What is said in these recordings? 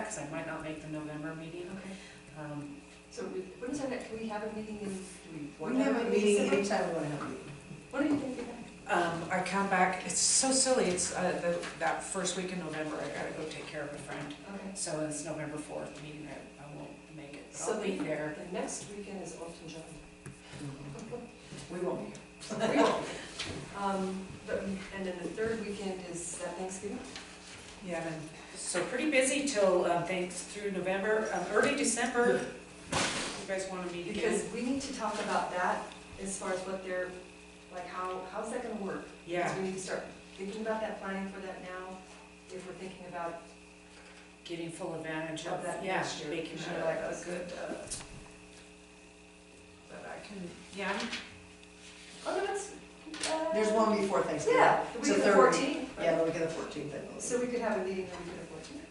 because I might not make the November meeting. Okay. Um, So we- when is our next, can we have a meeting in, do we want We to have a meeting in September? anytime we want to have a meeting. What do you think? of that? um, I come back, it's so silly, it's, uh, the, that first week in November, I gotta go take care of a friend. Okay. So it's November fourth meeting, I, I won't make it, but So I'll be there. The next weekend is Elton John. Mm-hmm. We won't be We won't. Um, but, and then the third weekend is that Thanksgiving? Yeah, and so pretty busy till, uh, thanks through November, um, early December. You guys wanna meet again? Because we need to talk about that as far as what they're, like, how, how's that gonna work? Yeah, Because we need to start thinking about that, planning for that now, if we're thinking about getting full advantage of, Of that yeah, next year. making sure Yeah. like a good, uh, that I can, yeah, I'm Oh, no, that's, uh. There's one before Thanksgiving. Yeah, the It's week of the third fourteenth. Yeah, the week of the fourteenth, I believe. So we could have a meeting on the week of the fourteenth,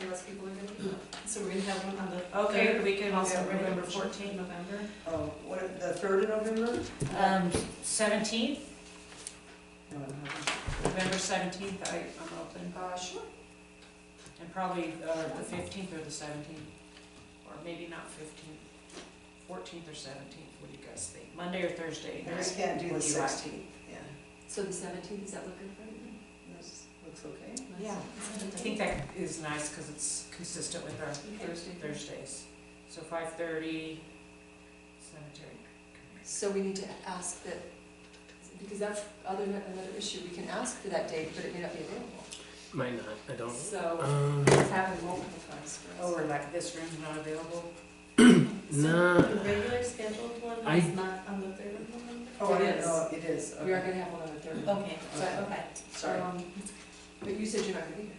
unless people are gonna be. So we're gonna have one on the. Okay, third, we can also November. November fourteenth, November. Oh, what, the third of November? Um, seventeenth, No, no, no. November seventeenth, I, I'm open, Uh, sure. and probably, uh, the fifteenth or the seventeenth, or maybe not fifteenth, fourteenth or seventeenth, what do you guys think? Monday or Thursday? I just can't do What the do you like? sixteenth, yeah. So the seventeenth, is that look good for everyone? This looks okay. Yeah, I think that is nice, cause it's consistent with our Thursday. Thursdays, so five thirty, cemetery. committee. So we need to ask that, because that's other, another issue, we can ask for that date, but it may not be available. Might not, I don't. So Um, it's happened multiple times for Oh, us. or like this room's not available? So no, The regular scheduled one I- is not on the third of November? Oh, I It didn't is. know, it is, We are Oh, okay, gonna have one on the third. Okay, Okay. But, okay. sorry. um, but you said you're not gonna be here.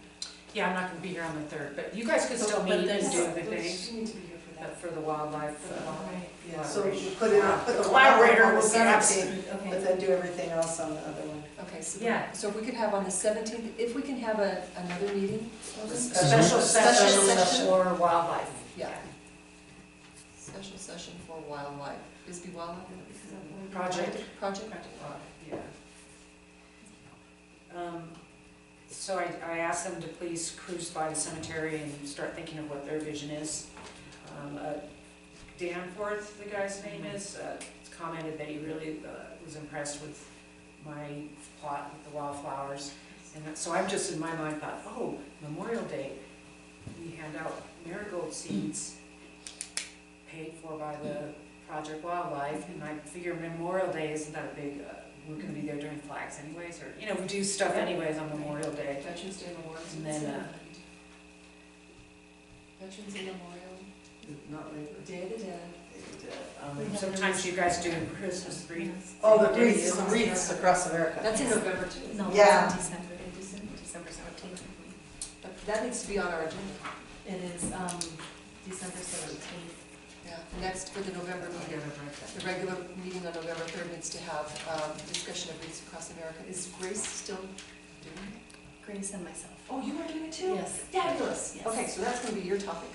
Yeah, I'm not gonna be here on the third, but you guys could still But- but meet and there's- do the But thing. You need to be here for But that. for the wildlife, uh, Alright, Yeah, so we put it on, put the. Collaborator on the will be 17th, absent. But okay. then do everything else on the other one. Okay, so, Yeah. so if we could have on the seventeenth, if we can have a, another meeting, special Special session session. for wildlife. yeah. Special session for wildlife, Bisbee Wildlife, is that what- Project. Project? Yeah. Um, So I, I asked them to please cruise by the cemetery and start thinking of what their vision is. Um, uh, Danforth, the guy's name is, uh, commented that he really uh, was impressed with my plot with the wildflowers. And that- so I'm just in my mind thought, oh, Memorial Day, we hand out marigold seeds paid for by the Project Wildlife, and I figure Memorial Day isn't that a big, uh, we're gonna be there doing flags anyways, or, you know, we do stuff anyways on Memorial Day. Veterans Day Memorial. And then, uh, Veterans Day Memorial, Not labor. Day of the Dead. It, uh, um, Sometimes you guys do Christmas wreath. Oh, the wreaths, the wreaths across America. That's in November too. No, Yeah. Oh, it's in December, it is in December seventeenth. That- That needs to be on our agenda, It is, um, December seventeenth. yeah. Next for the November meeting, the regular meeting on November third needs to have, um, discussion of wreaths across America. Is Grace still doing it? Grace and myself. Oh, you are doing it too? Yes. Fabulous. Yes. Okay, so that's gonna be your topic.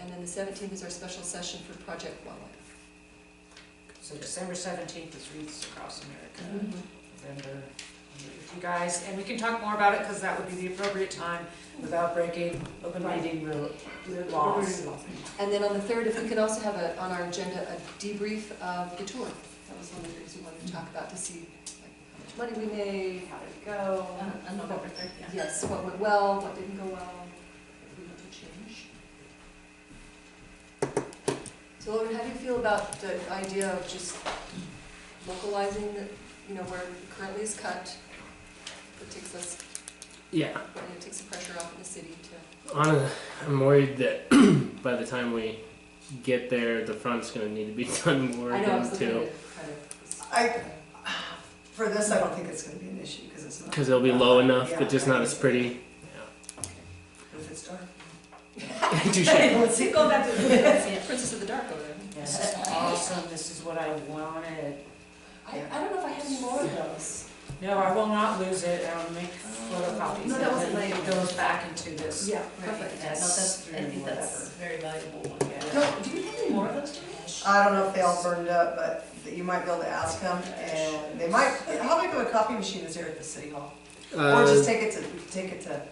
And then the seventeenth is our special session for Project Wildlife. So December seventeenth is wreaths across Mm-hmm. America. November, I'll meet with you guys, and we can talk more about it, because that would be the appropriate time without breaking open meeting rule, laws. And then on the third, if we could also have a, on our agenda, a debrief of the tour. That was one of the things we wanted to talk about, to see like how much money we made, how did it go? On, on November third, yeah. Yes, what went well, what didn't go well, if we want to change. So Lauren, how do you feel about the idea of just localizing the, you know, where it currently is cut? It takes us, yeah. it takes the pressure off of the city to, Honestly, I'm worried that by the time we get there, the front's gonna need to be done more I know, I was than looking at too, it kind of. I, for this, I don't think it's gonna be an issue, because it's not. Uh, because it'll be low enough, Yeah, but just not right. as pretty. If it's dark. Touche. Let's go back to Princess of the Dark over there. This is awesome, this is what I wanted. I, I don't know if I have any more of those. No, I will not lose it, I will make photocopies. Oh. No, that wasn't And then It goes back into this. Yeah, Right, yeah, no, that's, I think that's a very valuable one. Yeah. No, do you have any more of those, Josh? I don't know if they all burned up, but that you might be able to ask them, and they might, how big of a copy machine is there at the city hall? Or Uh, just take it to, take it to